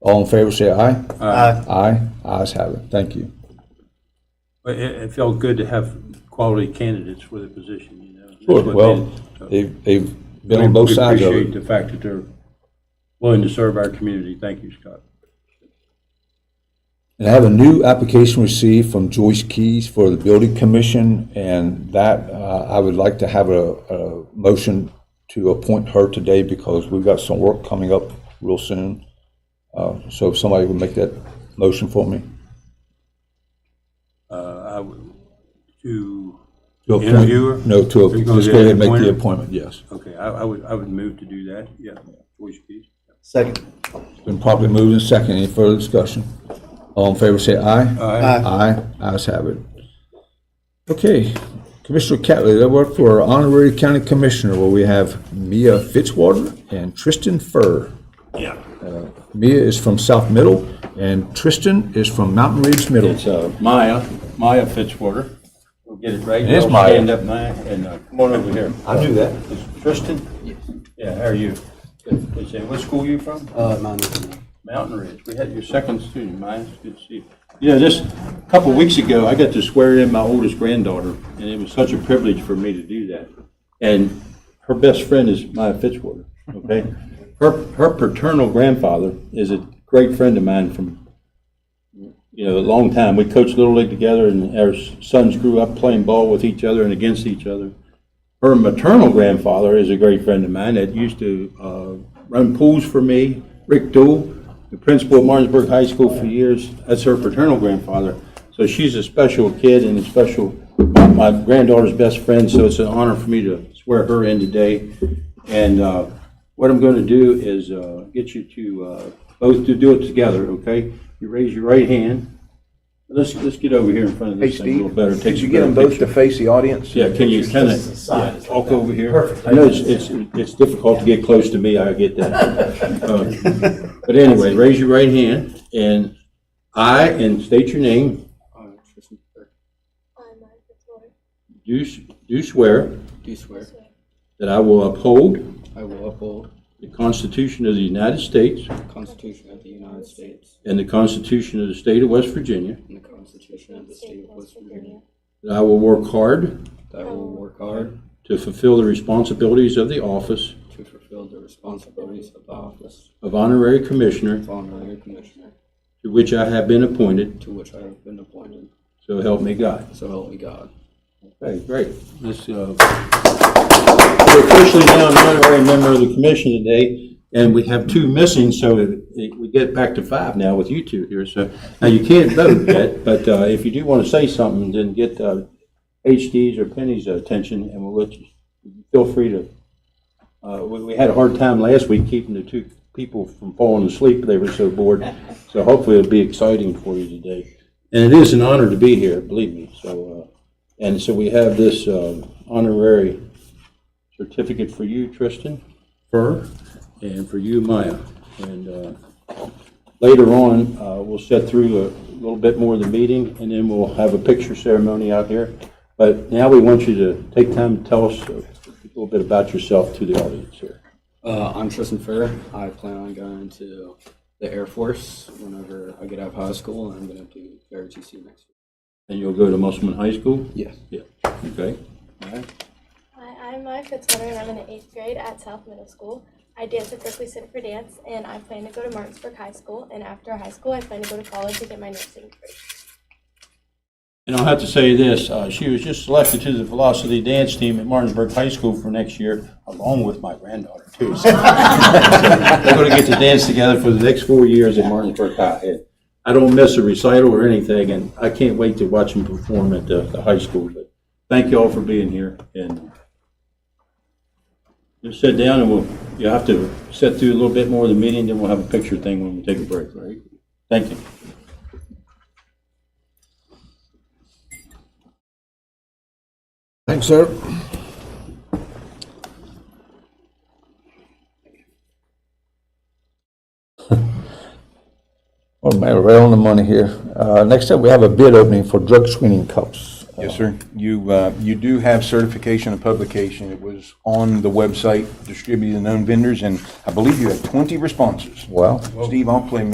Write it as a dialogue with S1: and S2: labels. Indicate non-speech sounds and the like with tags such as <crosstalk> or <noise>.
S1: All in favor, say aye.
S2: Aye.
S1: Aye, ayes have it, thank you.
S3: But it, it felt good to have quality candidates for the position, you know. That's what
S1: Well,
S3: did. So
S1: they've, they've been on both
S3: we
S1: sides of
S3: Appreciate
S1: it.
S3: the fact that they're willing to serve our community. Thank you, Scott.
S1: And I have a new application received from Joyce Keys for the Building Commission, and that, uh, I would like to have a, a motion to appoint her today because we've got some work coming up real soon. Uh, So if somebody would make that motion for me.
S3: Uh, I would- To,
S1: To appoint-
S3: Interview her?
S1: No, to,
S3: Are you gonna
S1: just
S3: do
S1: go ahead
S3: the
S1: and make the
S3: appointment?
S1: appointment, yes.
S3: okay, I, I would, I would move to do that, yeah. Voice, please.
S2: Second.
S1: Been properly moved and second. Any further discussion? All in favor, say aye.
S3: Aye.
S1: Aye. Ayes have it. Okay, Commissioner Catley, that worked for our honorary county commissioner, where we have Mia Fitzwater and Tristan Furr.
S3: Yeah.
S1: Mia is from South Middle, and Tristan is from Mountain Ridge Middle.
S3: It's uh, Maya, Maya Fitzwater. We'll get it right.
S1: It is
S3: Y'all
S1: Maya.
S3: Stand up, Maya, and uh, come on over here.
S1: I knew that.
S3: Is Tristan? Yes. Yeah, how are you? Good. Good to see you. What school you from?
S4: Uh, mine is-
S3: Mountain Ridge. We had your second student, Maya. It's good to see you. You know, just a couple of weeks ago, I got to swear in my oldest granddaughter, and it was such a privilege for me to do that. And her best friend is Maya Fitzwater, okay? Her, her paternal grandfather is a great friend of mine from, you know, a long time. We coached Little League together, and our sons grew up playing ball with each other and against each other. Her maternal grandfather is a great friend of mine that used to uh, run pools for me, Rick Dool, the principal of Martinsburg High School for years. That's her paternal grandfather. So she's a special kid and a special, my granddaughter's best friend, so it's an honor for me to swear her in today. And uh, what I'm going to do is uh, get you to, uh, both to do it together, okay? You raise your right hand. Let's, let's get over here in front of
S5: Hey,
S3: this thing a little
S5: Steve,
S3: better. Take
S5: could you
S3: a
S5: get them
S3: better
S5: both to face the audience?
S3: yeah, can you kind of walk over here? I know it's, it's, it's difficult to get close to me, I get <laughs> that. Uh, But anyway, raise your right hand and I, and state your name,
S4: uh, Tristan, uh,
S6: I, Maya Fitzwater,
S3: do, s- do swear
S4: do swear
S6: swear
S3: that I will uphold
S4: I will uphold
S3: the Constitution of the United States
S4: the Constitution of the United States
S3: and the Constitution of the State of West Virginia,
S4: and the Constitution of the State of West Virginia,
S3: that I will work hard
S4: that I will work hard
S3: to fulfill the responsibilities of the office
S4: to fulfill the responsibilities of the office
S3: of honorary commissioner
S4: of honorary commissioner
S3: to which I have been appointed,
S4: to which I have been appointed,
S3: so help me God.
S4: so help me God.
S3: Okay, great. Let's, uh, we're officially now an honorary member of the commission today, and we have two missing, so it- it- we get back to five now with you two here, so, now you can't vote yet, but uh, if you do want to say something, then get uh, HD's or Penny's attention, and we'll let you, feel free to, uh, we we had a hard time last week keeping the two people from falling asleep, they were so bored, so hopefully it'll be exciting for you today. And it is an honor to be here, believe me, so, uh, and so we have this um, honorary certificate for you, Tristan. Fur. And for you, Maya. And uh, later on, uh, we'll set through a little bit more of the meeting, and then we'll have a picture ceremony out here. But now we want you to take time to tell us a little bit about yourself to the audience here.
S4: Uh, I'm Tristan Fair. I plan on going to the Air Force whenever I get out of high school, and I'm going to do ROTC next year.
S3: And you'll go to Musselman High School?
S4: Yes.
S3: Yeah. Okay. All right.
S6: Hi, I'm Maya Fitzwater, and I'm in the eighth grade at South Middle School. I dance at Berkeley Center for Dance, and I plan to go to Martinsburg High School. And after high school, I plan to go to college to get my nursing degree.
S3: And I'll have to say this, uh, she was just selected to the Velocity Dance Team at Martinsburg High School for next year, along with my granddaughter, too. So <laughs> They're going to get to dance together for the next four years at Martinsburg High. And I don't miss a recital or anything, and I can't wait to watch them perform at the the high school. But Thank you all for being here, and just sit down, and we'll, you'll have to sit through a little bit more of the meeting, then we'll have a picture thing when we take a break, all right? Thank you.
S1: Thanks, sir. Well, man, right on the money here. Uh, Next up, we have a bid opening for drug screening cups.
S5: Yes, sir. You, uh, you do have certification of publication. It was on the website, distributed to known vendors, and I believe you had 20 responses.
S1: Well.
S5: Steve, I'll play